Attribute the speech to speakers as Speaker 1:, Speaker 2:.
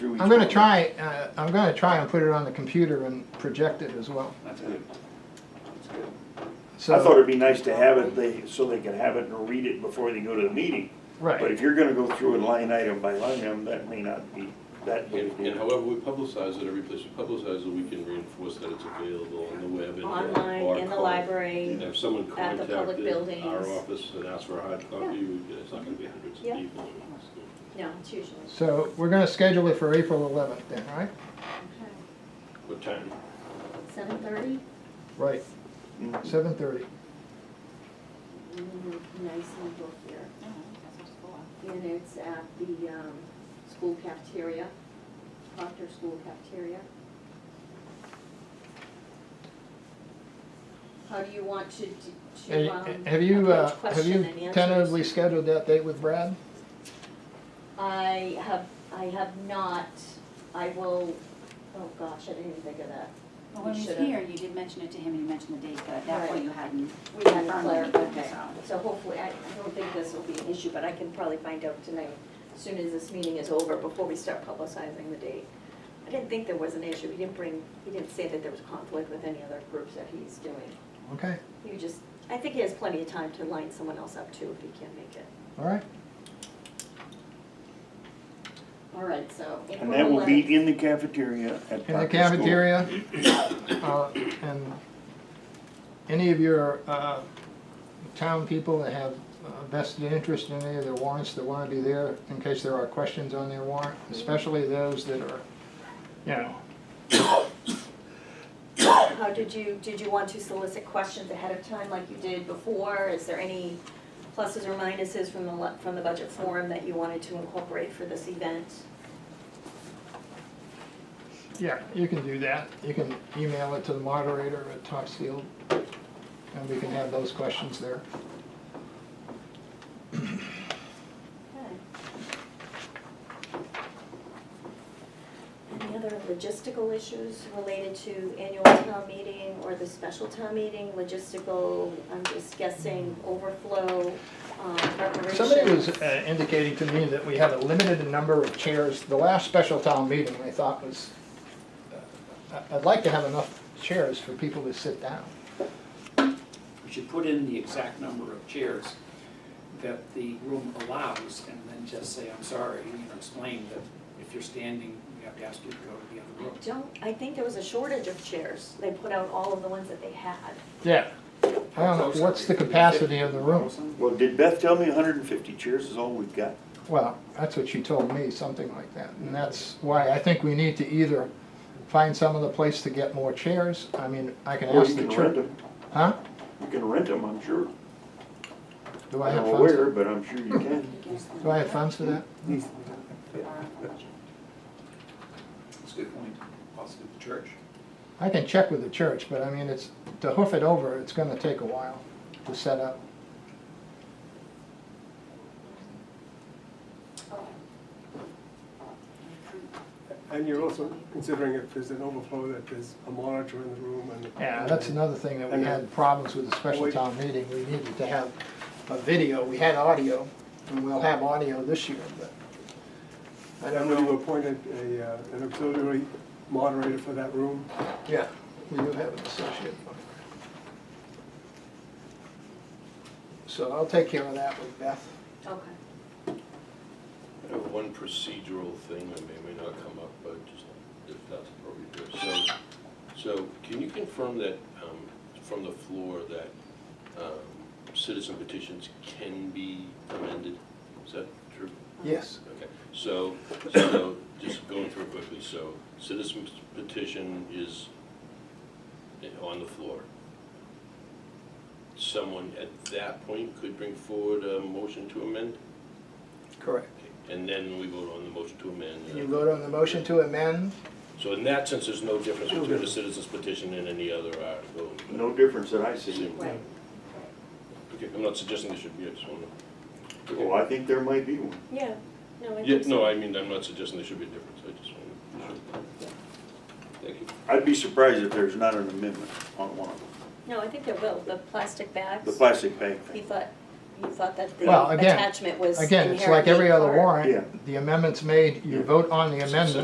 Speaker 1: I'm gonna try, uh, I'm gonna try and put it on the computer and project it as well.
Speaker 2: That's good. That's good.
Speaker 1: So
Speaker 2: I thought it'd be nice to have it, they, so they can have it and read it before they go to the meeting. But
Speaker 1: Right,
Speaker 2: if you're gonna go through it line item by line item, that may not be, that may
Speaker 3: And
Speaker 2: be.
Speaker 3: and however we publicize it, every place we publicize it, we can reinforce that it's available on the web and.
Speaker 4: Online, in the
Speaker 3: barcode.
Speaker 4: library.
Speaker 3: And If someone
Speaker 4: at the public
Speaker 3: contacted our
Speaker 4: buildings.
Speaker 3: office and asked for a hard copy, we- it's not gonna be hundreds of
Speaker 4: Yeah.
Speaker 3: people.
Speaker 4: No, it's usually.
Speaker 1: so we're gonna schedule it for April eleventh then, right?
Speaker 3: What time?
Speaker 4: Seven thirty?
Speaker 1: Right,
Speaker 2: Mhm.
Speaker 1: seven thirty.
Speaker 4: Mm-hmm, Nice and book here. And it's at the, um, school cafeteria, Proctor School Cafeteria. How do you want to, to, um,
Speaker 1: Have you, uh,
Speaker 4: approach
Speaker 1: have
Speaker 4: question
Speaker 1: you
Speaker 4: and answers?
Speaker 1: tentatively scheduled that date with Brad?
Speaker 4: I have, I have not, I will, oh gosh, I didn't even think of that.
Speaker 5: Well, when
Speaker 4: We
Speaker 5: he was
Speaker 4: should've-
Speaker 5: here, you did mention it to him, and you mentioned the date, but at that point,
Speaker 4: Right.
Speaker 5: you hadn't.
Speaker 4: We had
Speaker 5: confirmed
Speaker 4: Claire,
Speaker 5: anything,
Speaker 4: okay,
Speaker 5: so.
Speaker 4: so hopefully, I, I don't think this will be an issue, but I can probably find out tonight, as soon as this meeting is over, before we start publicizing the date. I didn't think there was an issue, he didn't bring, he didn't say that there was conflict with any other groups that he's doing.
Speaker 1: Okay,
Speaker 4: He just, I think he has plenty of time to line someone else up too, if he can't make it.
Speaker 1: all right.
Speaker 4: All right, so.
Speaker 2: And that will be in the cafeteria at Proctor
Speaker 1: In the
Speaker 2: School.
Speaker 1: cafeteria, uh, and any of your uh, town people that have uh, vested interest in any of their warrants that want to be there, in case there are questions on their warrant, especially those that are, you know,
Speaker 4: How did you, did you want to solicit questions ahead of time like you did before? Is there any pluses or minuses from the, le- from the budget forum that you wanted to incorporate for this event?
Speaker 1: yeah, you can do that. You can email it to the moderator at Topsfield, and we can have those questions there.
Speaker 4: Any other logistical issues related to annual town meeting or the special town meeting? Logistical, I'm just guessing, overflow, um, preparation.
Speaker 1: Somebody was uh, indicating to me that we had a limited number of chairs. The last special town meeting, I thought was, uh, I- I'd like to have enough chairs for people to sit down.
Speaker 6: We should put in the exact number of chairs that the room allows and then just say, I'm sorry, you know, explain that if you're standing, we have to ask you to go to the other room.
Speaker 4: I don't, I think there was a shortage of chairs. They put out all of the ones that they had.
Speaker 1: Yeah. I don't know, what's the capacity of the room?
Speaker 2: Well, did Beth tell me hundred and fifty chairs is all we've got?
Speaker 1: Well, that's what she told me, something like that. And that's why I think we need to either find some other place to get more chairs. I mean, I can
Speaker 2: Or you
Speaker 1: ask the
Speaker 2: can rent
Speaker 1: church.
Speaker 2: them,
Speaker 1: Huh?
Speaker 2: you can rent them, I'm sure.
Speaker 1: Do I
Speaker 2: I'm
Speaker 1: have
Speaker 2: not
Speaker 1: funds?
Speaker 2: aware, but I'm sure you can.
Speaker 1: Do I have funds for that?
Speaker 6: That's a good point, possibly the church.
Speaker 1: I can check with the church, but I mean, it's, to hoof it over, it's gonna take a while to set up.
Speaker 7: And you're also considering if there's an overflow, that there's a monitor in the room and.
Speaker 1: Yeah, that's another thing that we had problems with the special town meeting, we needed to have a video, we had audio, and we'll have audio this year, but. I
Speaker 7: And
Speaker 1: don't
Speaker 7: when you
Speaker 1: know,
Speaker 7: appointed a, uh, an auxiliary moderator for that room,
Speaker 1: yeah, we do have an associate. So I'll take care of that with Beth.
Speaker 4: Okay.
Speaker 3: I have uh, one procedural thing that may, may not come up, but just if that's appropriate. So, so can you confirm that, um, from the floor, that, um, citizen petitions can be amended? Is that true?
Speaker 1: Yes,
Speaker 3: Okay, so, so, just going through it quickly, so citizen petition is on the floor. Someone at that point could bring forward a motion to amend?
Speaker 1: correct.
Speaker 3: And then we vote on the motion to
Speaker 1: You
Speaker 3: amend.
Speaker 1: vote on the motion to amend,
Speaker 3: So in that sense, there's no difference between a citizen's petition and any other article.
Speaker 2: No difference that I see.
Speaker 4: Right.
Speaker 3: Okay, I'm not suggesting there should be, I just wanna.
Speaker 2: Oh, I think there might be one.
Speaker 4: Yeah, no, I
Speaker 3: Yeah,
Speaker 4: think so.
Speaker 3: no, I mean, I'm not suggesting there should be a difference, I just wanna. Thank you.
Speaker 2: I'd be surprised if there's not an amendment on one of them,
Speaker 4: No, I think there will, the plastic bags.
Speaker 2: the plastic bag
Speaker 4: He
Speaker 2: thing.
Speaker 4: thought, he thought that the
Speaker 1: Well, again-
Speaker 4: attachment was
Speaker 1: again, it's like every
Speaker 4: inherently
Speaker 1: other
Speaker 4: part-
Speaker 2: Yeah.
Speaker 1: warrant, the amendment's made, you
Speaker 2: Yeah.
Speaker 1: vote on the amendment,